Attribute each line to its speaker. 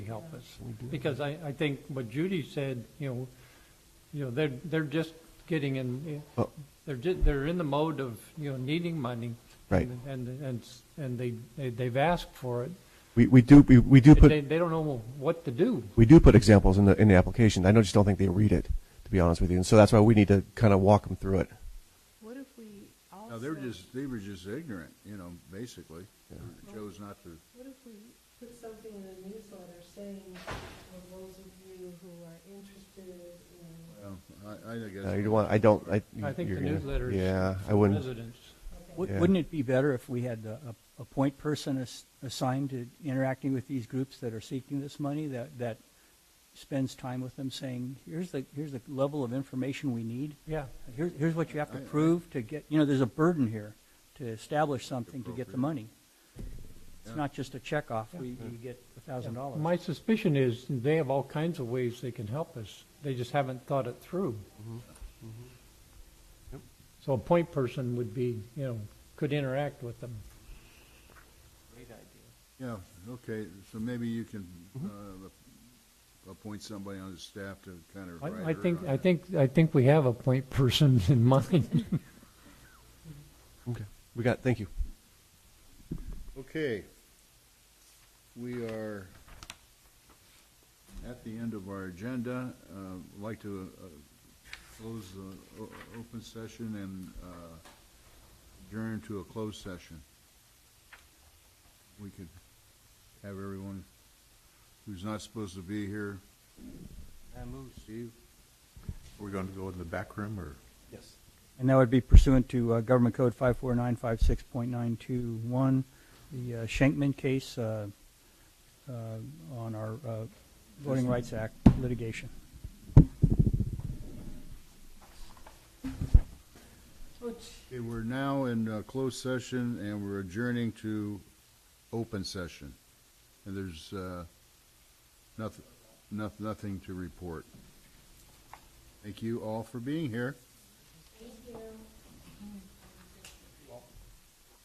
Speaker 1: help us. Because I, I think what Judy said, you know, you know, they're, they're just getting in,
Speaker 2: Oh.
Speaker 1: they're ju, they're in the mode of, you know, needing money.
Speaker 2: Right.
Speaker 1: And, and, s- and they, they- they've asked for it.
Speaker 2: We, we do, we, we do
Speaker 1: They,
Speaker 2: put,
Speaker 1: they don't know what to do.
Speaker 2: we do put examples in the, in the application. I know, just don't think they read it, to be honest with you. And so that's why we need to kind of walk them through it.
Speaker 3: What if we also?
Speaker 4: No, they were just, they were just ignorant, you know, basically. They Chose not to,
Speaker 3: What if we put something in the newsletter saying, for those of you who are interested in,
Speaker 4: um, I, I guess.
Speaker 2: Uh, you don't want, I don't, I.
Speaker 1: I think
Speaker 2: you're
Speaker 1: the
Speaker 2: gonna-
Speaker 1: newsletter is.
Speaker 2: Yeah, I
Speaker 1: for
Speaker 2: wouldn't,
Speaker 1: Residents.
Speaker 5: Wou-
Speaker 2: Yeah.
Speaker 5: Wouldn't it be better if we had a, a a point person as- assigned to interacting with these groups that are seeking this money, that, that spends time with them saying, here's the, here's the level of information we need,
Speaker 1: Yeah.
Speaker 5: here, here's what you have to
Speaker 4: I- I-
Speaker 5: prove to get, you know, there's a burden here to establish something to get the
Speaker 4: Appropriate.
Speaker 5: money. It's
Speaker 4: Yeah.
Speaker 5: not just a check off, we, you get a thousand dollars.
Speaker 1: My suspicion is they have all kinds of ways they can help us. They just haven't thought it through.
Speaker 2: Mm-hmm.
Speaker 1: So a point person would be, you know, could interact with them.
Speaker 4: Yeah, okay, so maybe you can, uh, appoint somebody on the staff to kind of write
Speaker 1: I, I
Speaker 4: her
Speaker 1: think,
Speaker 4: on
Speaker 1: I
Speaker 4: it.
Speaker 1: think, I think we have a point person in mind.
Speaker 2: okay. We got, thank you.
Speaker 4: Okay. We are at the end of our agenda. Uh, I'd like to uh, close the o- open session and uh, adjourn to a closed session. We could have everyone who's not supposed to be here. Steve?
Speaker 6: We're going to go in the back room, or?
Speaker 5: And that would be pursuant to uh, Government Code 54956.921, the uh, Schenkman case uh, uh, on our uh, Voting Rights Act litigation.
Speaker 4: Okay, we're now in uh, closed session and we're adjourning to open session. And there's uh, noth- noth- nothing to report. Thank you all for being here.